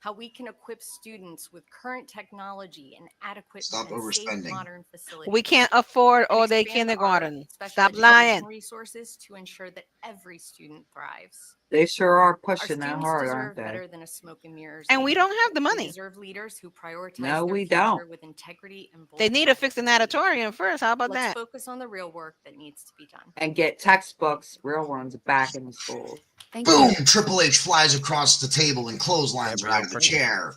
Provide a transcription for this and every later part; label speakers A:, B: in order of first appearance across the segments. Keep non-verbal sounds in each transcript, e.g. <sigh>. A: how we can equip students with current technology and adequate
B: Stop
A: and safe
B: overspending.
A: modern facilities.
C: We can't afford
A: and
C: all day
A: expand our
C: kindergarten.
A: special
C: Stop
A: education
C: lying.
A: Resources to ensure that every student thrives.
D: They sure are
A: Our
D: pushing that
A: students
D: hard,
A: deserve
D: aren't they?
A: better than a smoke and mirrors.
C: And we don't have the
A: We
C: money.
A: deserve leaders who prioritize
D: No,
A: their
D: we
A: future
D: don't.
A: with integrity and
C: They
A: bold
C: need to fix an
A: advocacy.
C: auditorium first. How about
A: Let's
C: that?
A: focus on the real work that needs to be done.
D: And get textbooks, real ones, back in the schools.
A: Thank
B: Boom!
A: you.
B: Triple H flies across the table and clotheslines her out of the chair.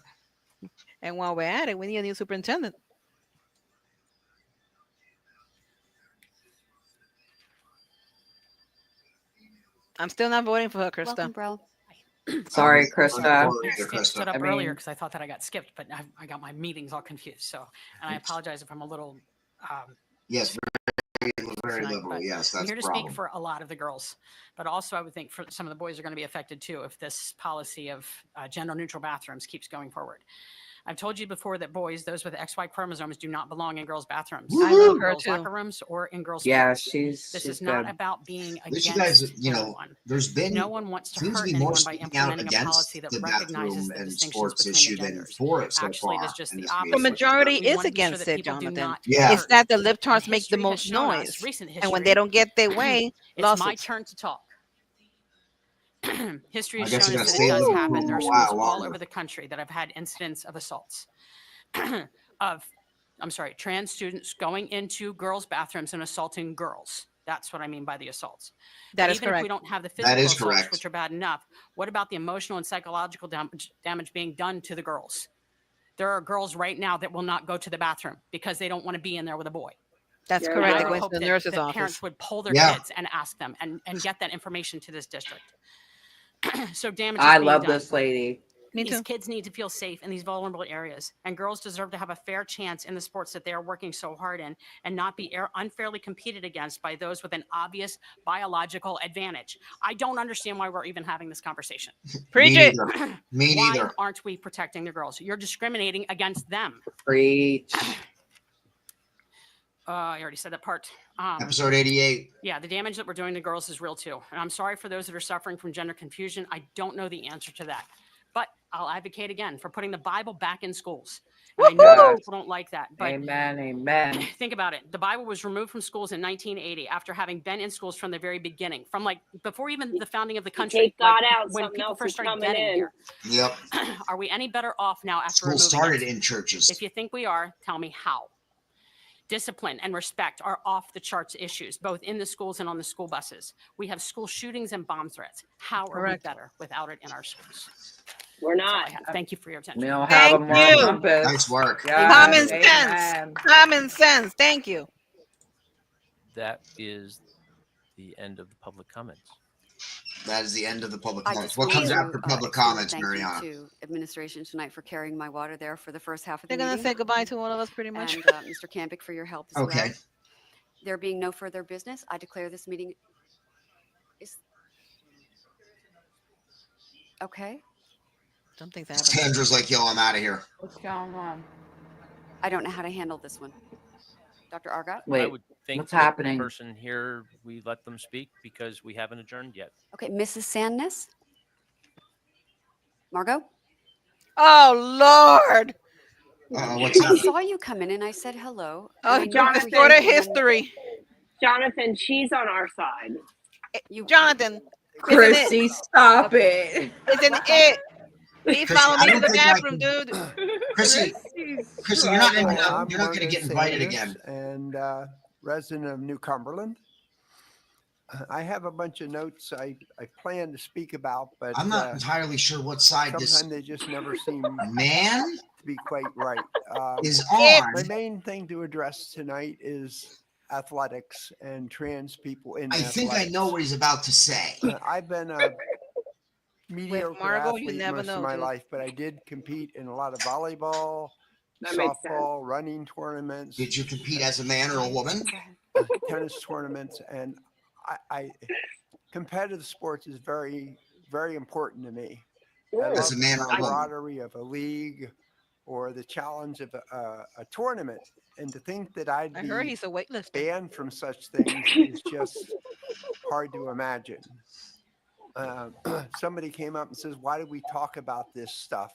C: And while we're at it, we need a new superintendent. I'm still not voting for her,
E: Welcome,
C: Krista.
E: bro.
D: Sorry,
B: Um,
D: Krista.
B: Gloria to
F: I
B: Krista.
F: stood up
D: I mean-
F: earlier because I thought that I got skipped, but I, I got my meetings all confused. So, and I apologize if I'm a little, um,
B: Yes, very, very
F: Tonight,
B: liberal.
F: but
B: Yes,
F: I'm
B: that's
F: here
B: the
F: to
B: problem.
F: speak for a lot of the girls. But also I would think for some of the boys are going to be affected too if this policy of uh, gender neutral bathrooms keeps going forward. I've told you before that boys, those with XY chromosomes do not belong in girls' bathrooms.
B: I
F: in
B: love
C: her
F: girls'
C: too.
F: Locker rooms or in girls'
D: Yeah,
F: schools.
D: she's,
F: This
D: she's
F: is not
D: good.
F: about being
B: least you guys,
F: against
B: you know,
F: anyone.
B: There's been
F: No one wants to
B: seems to
F: hurt
B: be more
F: anyone by
B: speaking out
F: implementing a
B: against
F: policy that
B: the
F: recognizes
B: bathroom
F: the
B: and
F: distinctions
B: sports
F: between the
B: issue than
F: genders.
B: for it so
F: Actually,
B: far.
F: there's just
B: in
F: the
B: this
F: opposite.
C: The
B: meeting.
C: majority
F: We
C: is
F: wanna make sure
C: against
F: that
C: it,
F: people do
C: Jonathan.
F: not
B: Yeah.
F: get
C: It's
F: hurt.
C: that the lip
F: And
C: tarts make the
F: history has
C: most
F: shown us,
C: noise.
F: recent
C: And when
F: history,
C: they don't get
F: <clears throat>
C: their way,
F: It's my
C: lawsuits.
F: turn to talk. <clears throat> History
B: I
F: has shown
B: guess
F: us
B: you gotta
F: that
B: stay
F: it does
B: on
F: happen. There are
B: for a while
F: schools all
B: longer.
F: over the country that have had incidents of assaults <clears throat> of, I'm sorry, trans students going into girls' bathrooms and assaulting girls. That's what I mean by the assaults.
C: that
F: But
C: is
F: even if we
C: correct.
F: don't have the
B: That
F: physical
B: is
F: assaults,
B: correct.
F: which are bad enough, what about the emotional and psychological damage, damage being done to the girls? There are girls right now that will not go to the bathroom because they don't want to be in there with a boy.
C: That's
D: Yeah,
F: And
C: correct.
F: I
C: They're
F: would
C: going
F: hope
C: to the
F: that-
C: nurse's
F: that
C: office.
F: Parents would poll their
B: Yeah.
F: kids and ask them and, and get that information to this district. <clears throat> so damage. is
D: I
F: being
D: love
F: done.
D: this lady.
C: Me
F: These
C: too.
F: kids need to feel safe in these vulnerable areas, and girls deserve to have a fair chance in the sports that they are working so hard in, and not be air- unfairly competed against by those with an obvious biological advantage. I don't understand why we're even having this conversation.
C: Preach
B: Me
C: it.
B: neither. Me
F: why
B: neither.
F: aren't we protecting the girls? You're discriminating against them.
D: Preach.
F: Uh, I already said that part. Um,
B: Episode 88.
F: Yeah, the damage that we're doing to girls is real too. And I'm sorry for those that are suffering from gender confusion. I don't know the answer to that. But I'll advocate again for putting the Bible back in schools. And I know a lot of
D: Woohoo!
F: people don't like that, but
D: Amen, amen.
F: <clears throat> think about it. The Bible was removed from schools in 1980 after having been in schools from the very beginning, from like before even the founding of the country.
G: Take
F: like,
G: God out,
F: when
G: something
F: people
G: else
F: first
G: is
F: started
G: coming
F: getting
G: in.
F: here. <clears throat>
B: Yep.
F: Are we any better off now after
B: School
F: removing
B: started
F: it?
B: in churches.
F: If you think we are, tell me how. Discipline and respect are off the charts issues, both in the schools and on the school buses. We have school shootings and bomb threats. How are we
C: Correct.
F: better without it in our schools?
G: We're
F: That's all I
G: not.
F: have. Thank you for your
D: We
F: attention.
D: don't have a
C: Thank
D: moral
C: you.
D: compass.
B: nice work.
C: Common
D: Yes,
C: sense.
D: amen.
C: Common sense. Thank you.
H: That is the end of the public comments.
B: That is the end of the public
E: I
B: comments.
E: just
B: What
E: want
B: comes
E: to,
B: after
E: uh,
B: public
E: extend a
B: comments,
E: thank you
B: Mariana?
E: To administration tonight for carrying my water there for the first half of the
C: They're going to
E: meeting.
C: say goodbye to one of us pretty much.
E: And uh, Mr. Campic for your help as well.
B: Okay.
E: There being no further business, I declare this meeting is. Okay,
C: Something's happening.
B: Sandra's like, yo, I'm out of here.
D: What's going on?
E: I don't know how to handle this one. Dr. Argot?
H: I
D: Wait,
H: would think
D: what's
H: that the
D: happening?
H: Person here, we let them speak because we haven't adjourned yet.
E: Okay, Mrs. Sandness? Margot?
C: <laughs> Oh, Lord.
B: Uh, what's
E: I
B: up?
E: saw you come in and I said hello. and I
C: Oh,
E: knew
C: Jonathan,
E: everything,
C: for the
E: and then
C: history.
G: Jonathan, she's on our side.
E: you-
C: Jonathan,
D: Christy, stop it.
C: it's <laughs> an it. He
B: Chrissy,
C: followed
B: I
C: me to
B: don't
C: the
B: think I
C: bathroom, dude.
B: Chrissy, Chrissy, you're not, invi- you're not going to get invited again.
I: And uh, resident of New Cumberland. Uh, I have a bunch of notes I, I plan to speak about, but
B: I'm not
I: uh,
B: entirely sure what side this
I: sometimes they just never seem <laughs> to
B: man
I: be quite right. Uh,
B: is on.
I: My main thing to address tonight is athletics and trans people in
B: I think I know what he's about to
I: <laughs>
B: say.
I: Uh, I've been a mediocre
C: Margot, you
I: athlete
C: never
I: most
C: know,
I: of my
C: dude.
I: life, but I did compete in a lot of volleyball,
G: That makes sense.
I: softball, running tournaments,
B: Did you compete as a man or a woman?
E: Go ahead.
I: tennis tournaments, and I, I competitive sports is very, very important to me. I
B: As
I: love
B: a man or a
I: the
B: woman.
I: camaraderie of a league or the challenge of a, a, a tournament, and to think that I'd
C: I
I: be
C: heard he's a weightlifter.
I: banned from such things is just hard to imagine. Um, somebody came up and says, "Why do we talk about this stuff?"